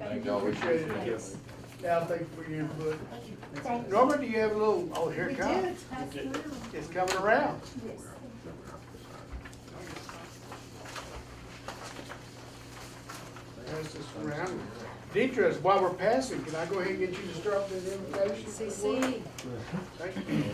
Thank you. Appreciate it. Yes. Al, thank you for your input. Thank you. Norma, do you have a little, oh, here We it do, comes. it's passed through. It's coming around. Yes. Pass this around. Deidre, while we're passing, can I go ahead and get you to start with the invitation? CC. Thank you.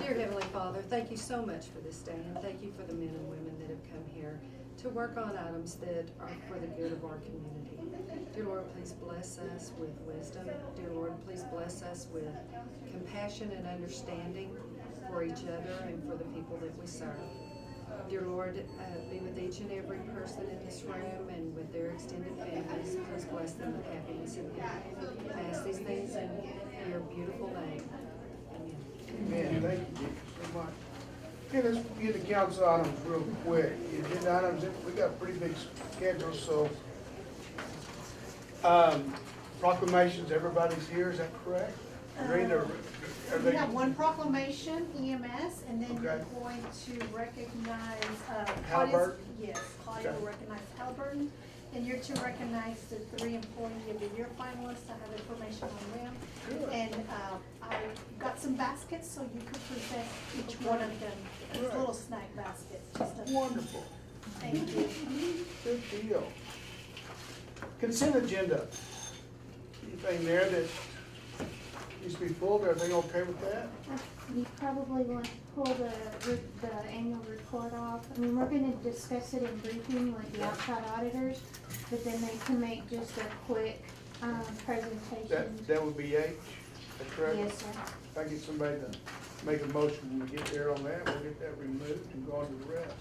Dear Heavenly Father, thank you so much for this day, and thank you for the men and women that have come here to work on items that are for the good of our community. Dear Lord, please bless us with wisdom. Dear Lord, please bless us with compassion and understanding for each other and for the people that we serve. Dear Lord, uh, be with each and every person in this room and with their extended families. Please bless them with happiness and health. I ask these things in your beautiful name. Man, Amen. thank you so much. Okay, let's get the council items real quick. The Agenda items, we got a pretty big schedule, so. Um, proclamations, everybody's here, is that correct? Rita, are We they- have one proclamation EMS, and then Okay. we're going to recognize, uh. Claudia's- Halliburton? Yes, Claudia will recognize Halliburton, and you're to recognize the three employee of the year finalists, I have information on them. Good. And, uh, I got some baskets, so you could present each one of them, It's Good. little snack baskets, just a. Wonderful. Thank you. Good deal. Consent agenda. Anything there that needs to be pulled, everything okay with that? You probably want to pull the, re- the annual report off. I mean, we're gonna discuss it in briefing with the outside auditors, but then they can make just a quick, um, presentation. That, that would be H, is that correct? Yes, sir. If I get somebody to make a motion when we get there on that, we'll get that removed and go on to the rest.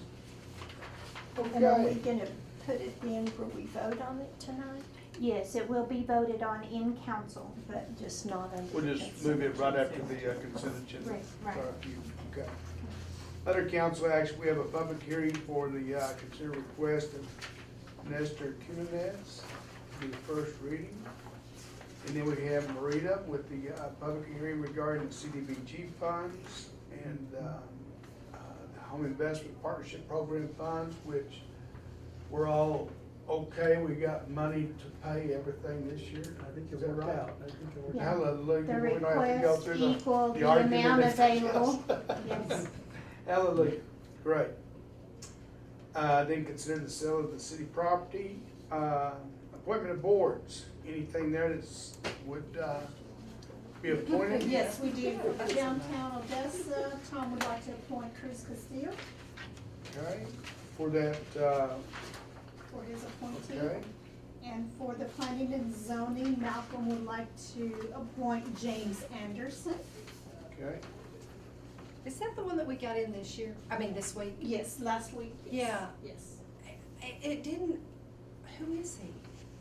And are we Okay. gonna put it in where we vote on it tonight, Yes, it will be voted on in council. but just not under? We'll just move it right after the uh, consent agenda. Right, right. Sorry, you- Okay. Under council action, we have a public hearing for the, uh, consider request of Nestor Kuninez, the first reading. And then we have Marita with the, uh, public hearing regarding CDBG funds and, uh, uh, the Home Investment Partnership Program funds, which we're all okay, we got money to pay everything this year. I think it Is that worked right? out. I think it worked out. Hallelujah. The We don't have to go request through the- equal the argument amount and everything available. else. Yes. Hallelujah, great. Uh, then consider the sale of the city property, uh, appointment of boards, anything there that's, would, uh, be appointed? Yes, we do. Downtown Odessa, Tom would like to appoint Cruz Castillo Okay, for that, uh, for his okay, appointee. And for the planning and zoning, Malcolm would like to appoint James Anderson. okay. Is that the one that we got in this year? I mean, this week? Yes, last week. yes, Yeah. Yes. It, it didn't, who is he?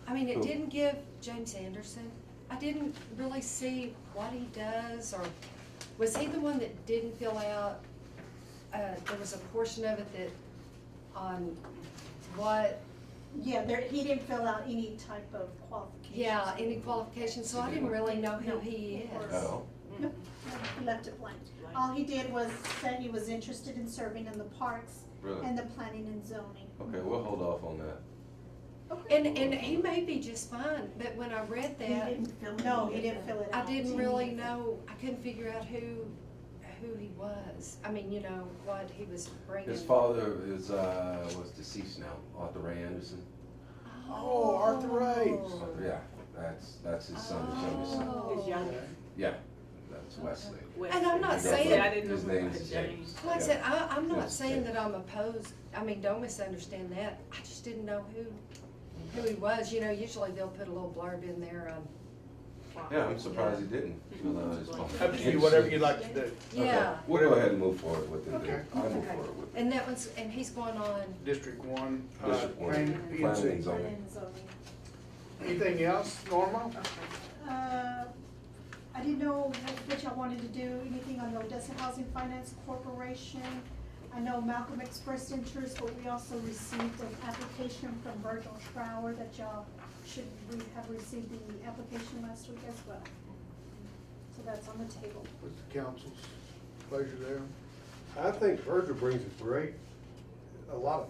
I mean, it Who? didn't give James Anderson, I didn't really see what he does, or was he the one that didn't fill out? Uh, there was a portion of it that, on what, Yeah, there, he didn't fill out any type of qualifications. yeah, any qualifications, so I didn't really know who he is. Oh, No, He left it blank. All he did was said he was interested in serving in the parks really? and the planning and zoning. Okay, we'll hold off on that. Okay. And, and he may be just fine, but when I read He that, didn't fill it No, in. he didn't fill it I out. didn't really know, I couldn't figure out who, who he was. I mean, you know, what he was bringing. His father is, uh, was deceased now, Arthur Ray Anderson. Oh, Arthur Rice. Arthur- Yeah, that's, that's his son, his youngest son. Mm-hmm. Oh. His young. Yeah, that's Wesley. And I'm not saying- I didn't His know name what is that James. Like I Yeah. said, I, I'm not That's saying okay. that I'm opposed, I mean, don't misunderstand that. I just didn't know who, who he was. You know, usually they'll put a little blurb in there um, on. Yeah, I'm surprised he didn't. fill out his father. Up to you, whatever you'd like to do. Okay, Mm-hmm. Yeah, We'll go ahead and move forward with it Okay. then. I'll move Okay. forward with it. and that one's, and he's going on, District one, uh, District one, planning, P and planning and Z. Planning zoning. and zoning. Anything else, Norma? Uh, I didn't know wh- what y'all wanted to do, anything on the Odessa Housing Finance Corporation. I know Malcolm expressed interest, but we also received an application from Virgil Trower that y'all should, we have received the application last week as well. So that's on the table. With the council's pleasure there. I think Virgil brings a great a lot of